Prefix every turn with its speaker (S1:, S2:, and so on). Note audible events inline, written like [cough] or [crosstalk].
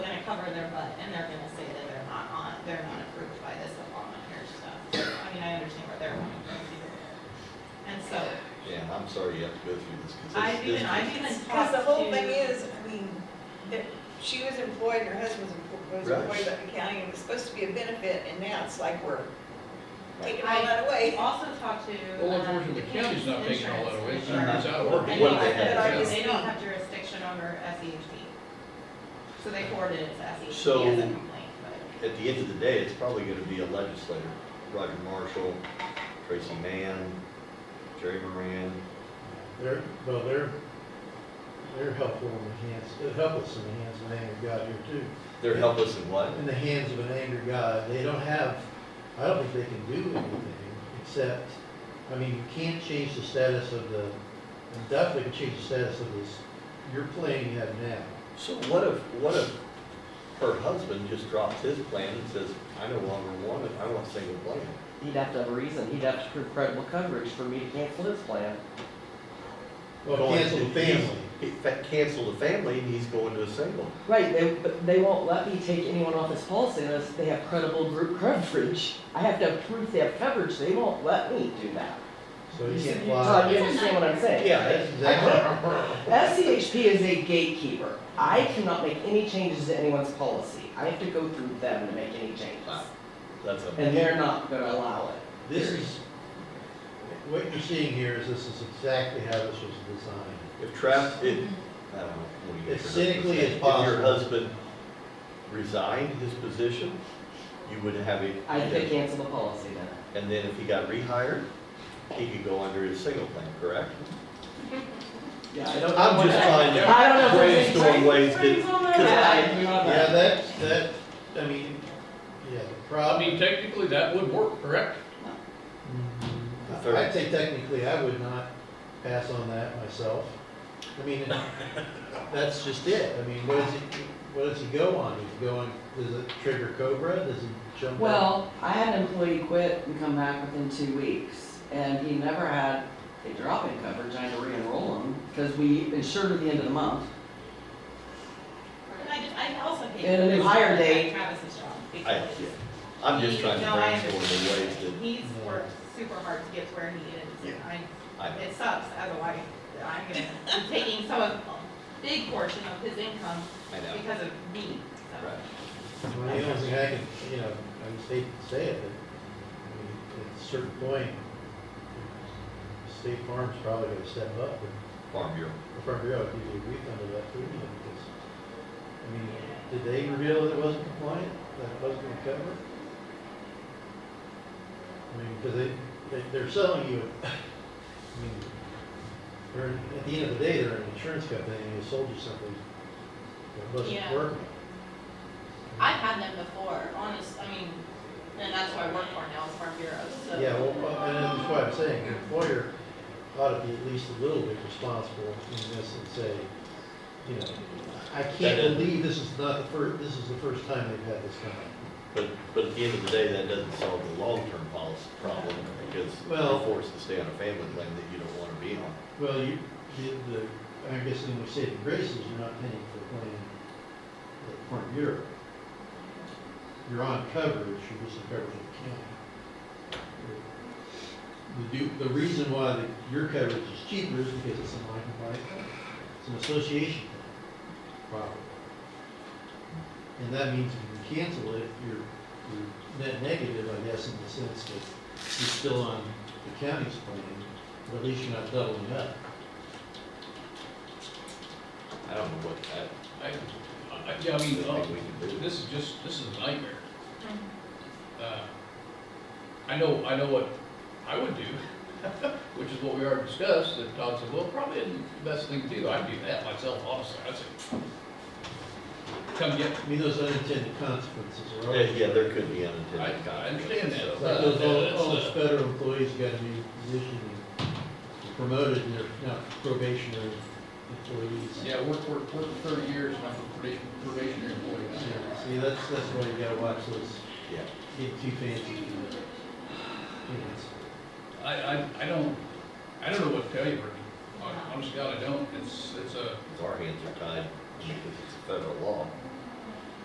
S1: butt, and they're gonna say that they're not on, they're not approved by this Obama care stuff. I mean, I understand where they're coming from too. And so,
S2: Yeah, I'm sorry you have to go through this, because this.
S1: I've even,
S2: this-
S1: I've even talked to.
S3: [laughs] Because the whole thing is, I mean, that she was employed, her husband was employed- was
S2: Right.
S3: employed by the county, and it was supposed to be a benefit, and now it's like we're taking
S1: I-
S3: all that
S1: I
S3: away.
S1: also talked to.
S4: Well,
S1: um,
S4: unfortunately, the county's not taking all that away,
S1: insurance
S4: it's it's out of order.
S1: And
S2: What
S1: they
S2: do they
S1: said
S2: have?
S1: that they don't have jurisdiction over SEHP. So they forwarded it to
S2: So-
S1: SEHP as a complaint, but
S2: At the end of the day, it's probably gonna be a legislator, Roger Marshall, Tracy Mann, Jerry Moran.
S5: They're, well, they're, they're helpful in the hands, they're helpless in the hands of an angry God here too.
S2: They're helpless in what?
S5: In the hands of an angry God, they don't have, I don't think they can do anything except, I mean, you can't change the status of the, you definitely can change the status of this, you're playing that now.
S2: So what if, what if her husband just drops his plan and says, I no longer want it, I want single plan?
S6: He'd have to have a reason, he'd have to prove credible coverage for me to cancel his plan.
S5: Well,
S2: Going
S5: cancel the
S2: to-
S5: family.
S2: He fa- Cancel the family and he's going to a single.
S6: Right, they, but they won't let me take anyone off his policy unless they have credible group coverage. I have to have proof they have coverage, they won't let me do that.
S5: So you can't
S6: Todd,
S5: fly.
S6: you understand what I'm saying?
S2: Yeah,
S5: That's
S2: that's-
S5: exactly.
S6: SCHP is a gatekeeper. I cannot make any changes to anyone's policy. I have to go through them to make any changes.
S2: that's a.
S6: And they're not gonna allow it.
S5: This is, what you're seeing here is this is exactly how this was designed.
S2: If Trav, it, I don't know. what do you-
S5: As cynically as
S2: If your
S5: possible.
S2: husband resigned his position, you would have a.
S6: I have to cancel the policy then.
S2: And then if he got rehired, he could go under his single plan, correct?
S6: Yeah, I don't.
S2: I'm just trying to
S6: I don't know.
S2: brainstorm ways
S6: Pretty
S2: to.
S6: well know
S2: 'cause
S6: that.
S2: I-
S6: I do not know.
S5: Yeah, that's, that, I mean, yeah, the
S4: I
S5: problem,
S4: mean, technically, that would work, correct?
S2: third-
S5: I'd say technically I would not pass on that myself. I mean, that's just it. I mean, what does he, what does he go on? Does he go on, does it trigger Cobra? Does he jump? on-
S6: Well, I had an employee quit and come back within two weeks, and he never had a drop in coverage, I had to re-enroll him, because we insured at the end of the month.
S1: and I just, I also hate.
S6: And a new hire date.
S1: Travis's job,
S2: I, yeah,
S1: because
S2: I'm just trying
S1: No, I
S2: to brainstorm the ways that,
S1: he's worked super hard to get to where he is, and I
S2: I know.
S1: It sucks, otherwise, I'm gonna, I'm taking some of, big portion of his income
S2: I know,
S1: because of me, so.
S2: right.
S5: Well, The only thing I can, you know, I just hate to say it, but, I mean, at a certain point, State Farm's probably gonna step up and
S2: Farm Bureau.
S5: the front row, did you refund of that premium? Because, I mean, did they reveal that it wasn't compliant, that it wasn't gonna cover? it? I mean, because they, they, they're selling you, [laughs] I mean, they're, at the end of the day, they're an insurance company, and they sold you something that wasn't
S7: Yeah.
S5: working.
S7: I've had them before, honest, I mean, and that's what I work for now, is Farm Bureaus, so.
S5: Yeah, well, uh, and that's why I'm saying, the employer ought to be at least a little bit responsible in this and say, you know, I
S2: That-
S5: can't believe this is not the first, this is the first time they've had this kind of.
S2: But, but at the end of the day, that doesn't solve the long-term policy problem, because
S5: Well-
S2: you're forced to stay on a family plan that you don't wanna be on.
S5: Well, you, the, the, I guess when we say the graces, you're not paying for the plan that Farm Bureau. You're on coverage, you're just in coverage of the county. The, do- the reason why the- your coverage is cheaper is because it's an non-compliant, plan. it's an association problem. And that means you can cancel it, you're, you're net negative, I guess, in the sense that you're still on the county's plan, but at least you're not doubling up.
S2: I don't know what, I,
S4: I, I, yeah, I mean,
S2: I
S4: uh,
S2: think we can do.
S4: this is just, this is a nightmare. Uh, I know, I know what I would do, [laughs] which is what we already discussed, that Todd said, well, probably isn't the best thing to do, I'd do that myself, honestly, I'd say. Come get,
S5: I mean, those unintended consequences are
S2: Yeah,
S5: always.
S2: yeah, there could be
S4: I,
S2: unintended
S4: I
S2: consequences.
S4: understand that.
S2: so.
S5: Like
S4: but
S5: those,
S4: that's,
S5: all, all
S4: uh,
S5: those federal employees got a new position and promoted, and they're now probationary employees.
S4: Yeah, I worked, worked, worked for thirty years, and I'm a probation- probationary employee.
S5: Yeah, See, that's, that's why you gotta watch those,
S2: Yeah,
S5: get too fancy. you know. You know, it's-
S4: I, I, I don't, I don't know what to tell you, Ricky. Hon- Honest to God, I don't. It's, it's a,
S2: because our hands are tied, I mean, because it's federal law.